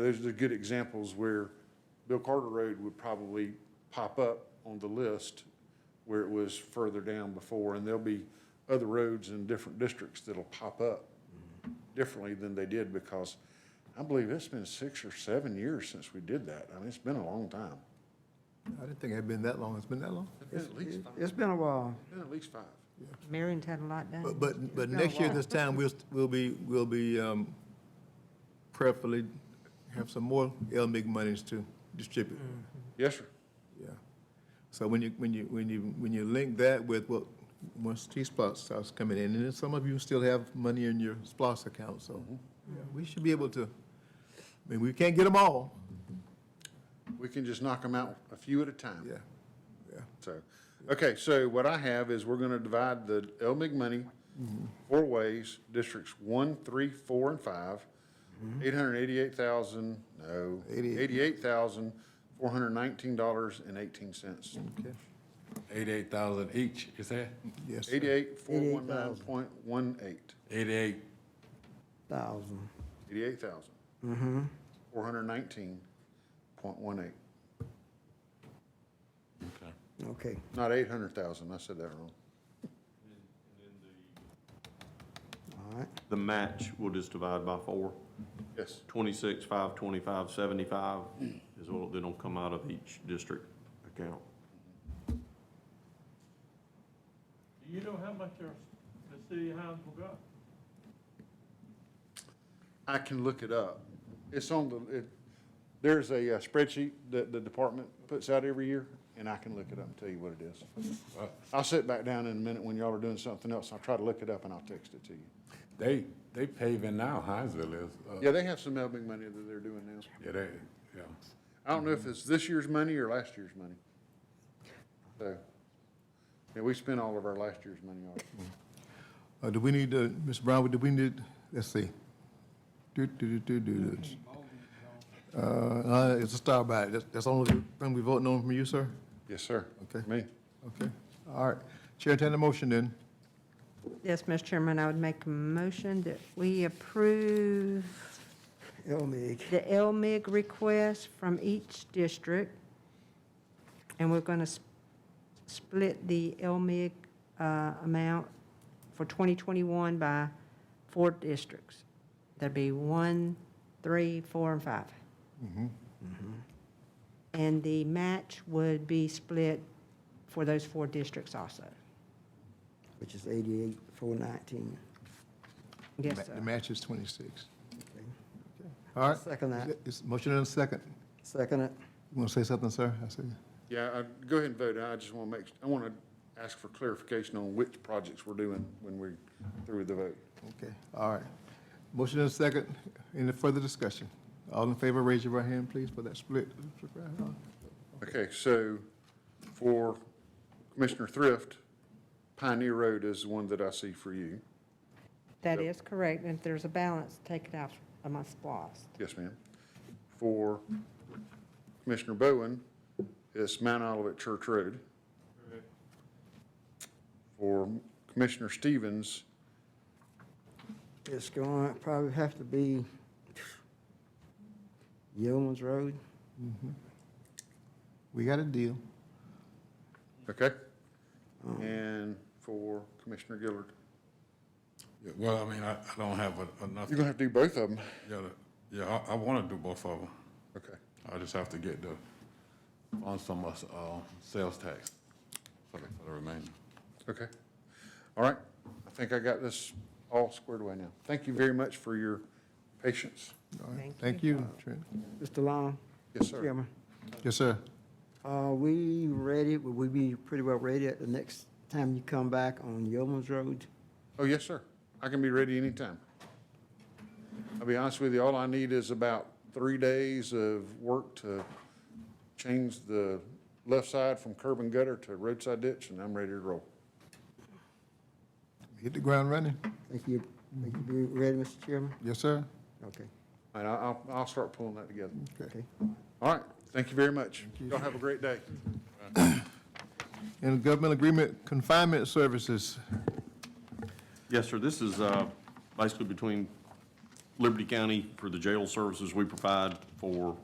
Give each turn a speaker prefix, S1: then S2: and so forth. S1: Those are the good examples where Bill Carter Road would probably pop up on the list where it was further down before, and there'll be other roads in different districts that'll pop up differently than they did because I believe it's been six or seven years since we did that. I mean, it's been a long time.
S2: I didn't think it had been that long. It's been that long?
S1: It's been at least five,
S3: It's been a while.
S1: It's been at least five.
S4: Marion's had a lot done.
S2: But, but, but next year this time, we'll, st- we'll be, we'll be, um, prayerfully have some more LMIG monies to distribute.
S1: Yes, sir.
S2: Yeah. So when you, when you, when you, when you link that with what, once T-Splosh starts coming in, and then some of you still have money in your SPOS account, so yeah, we should be able to, I mean, we can't get them all.
S1: We can just knock them out a few at a time.
S2: Yeah.
S1: So, okay, so what I have is we're gonna divide the LMIG money four ways, districts one, three, four, and five. Eight hundred eighty-eight thousand, no,
S2: Eighty-eight.
S1: eighty-eight thousand, four hundred nineteen dollars and eighteen cents.
S2: Okay.
S5: Eighty-eight thousand each, is that?
S2: Yes. sir.
S1: Eighty-eight, four, one, nine, point, one, eight,
S5: Eighty-eight,
S3: Thousand.
S1: eighty-eight thousand. Four hundred nineteen, point one eight,
S5: okay.
S3: Okay.
S1: not eight hundred thousand, I said that wrong.
S3: All right.
S6: The match, we'll just divide by four.
S1: Yes,
S6: Twenty-six, five, twenty-five, seventy-five is what, that'll come out of each district account.
S7: Do you know how much our, the city of Hounsville got?
S1: I can look it up. It's on the, it, there's a uh, spreadsheet that the department puts out every year, and I can look it up and tell you what it is. I'll sit back down in a minute when y'all are doing something else, I'll try to look it up and I'll text it to you.
S5: They, they paving now, Hinesville is, uh,
S1: Yeah, they have some helping money that they're doing now.
S5: yeah, they, yeah.
S1: I don't know if it's this year's money or last year's money. So, yeah, we spent all of our last year's money already.
S2: Uh, do we need, uh, Ms. Brown, do we need, let's see. Do, do, do, do, do, do. Uh, uh, it's a star ballot. That's, that's the only thing we voting on from you, sir?
S1: Yes, sir.
S2: Okay.
S1: Me.
S2: Okay, all right. Chair, entertain the motion then.
S4: Yes, Mr. Chairman, I would make a motion that we approve
S3: Elmeg.
S4: the LMIG request from each district. And we're going to split the LMIG uh, amount for 2021 by four districts. That'd be one, three, four, and five. Mm-hmm. And the match would be split for those four districts also.
S3: Which is eighty-eight, four nineteen.
S4: Yes,
S2: Ma-
S4: sir.
S2: The match is twenty-six. All right.
S3: Second that.
S2: It's motion and a second.
S3: Second it.
S2: You want to say something, sir? I see.
S1: Yeah, I, go ahead and vote. I just want to make, I want to ask for clarification on which projects we're doing when we're through with the vote.
S2: Okay, all right. Motion and a second. Any further discussion? All in favor, raise your right hand, please, for that split.
S1: Okay, so for Commissioner Thrift, Pioneer Road is the one that I see for you.
S4: That is correct, and if there's a balance, take it out of my SPOS.
S1: Yes, ma'am. For Commissioner Bowen, it's Mount Olivet Church Road. For Commissioner Stevens,
S3: It's going, to probably have to be Yeoman's Road.
S2: We got a deal.
S1: okay? And for Commissioner Gillard.
S5: Yeah, Well, I mean, I, I don't have a- enough,
S1: You're gonna have to do both of them.
S5: yeah, the- yeah, I, I wanna do both of them.
S1: Okay.
S5: I just have to get the, on some, uh, sales tax for the for the remainder.
S1: Okay. All right. I think I got this all squared away now. Thank you very much for your patience.
S2: All right.
S4: Thank
S2: Thank you, Trent.
S3: Mr. Long?
S1: Yes, sir.
S3: Chairman,
S2: Yes, sir.
S3: are we ready? Will we be pretty well ready at the next time you come back on Yeoman's Road?
S1: Oh, yes, sir. I can be ready anytime. I'll be honest with you, all I need is about three days of work to change the left side from curb and gutter to roadside ditch, and I'm ready to roll.
S2: Hit the ground running.
S3: Think you, think you be ready, Mr. Chairman?
S2: Yes, sir.
S3: Okay,
S1: And I- I'll, I'll start pulling that together.
S3: okay.
S1: All right. Thank you very much. Y'all have a great day.
S2: And government agreement confinement services.
S6: Yes, sir, this is uh, basically between Liberty County for the jail services we provide for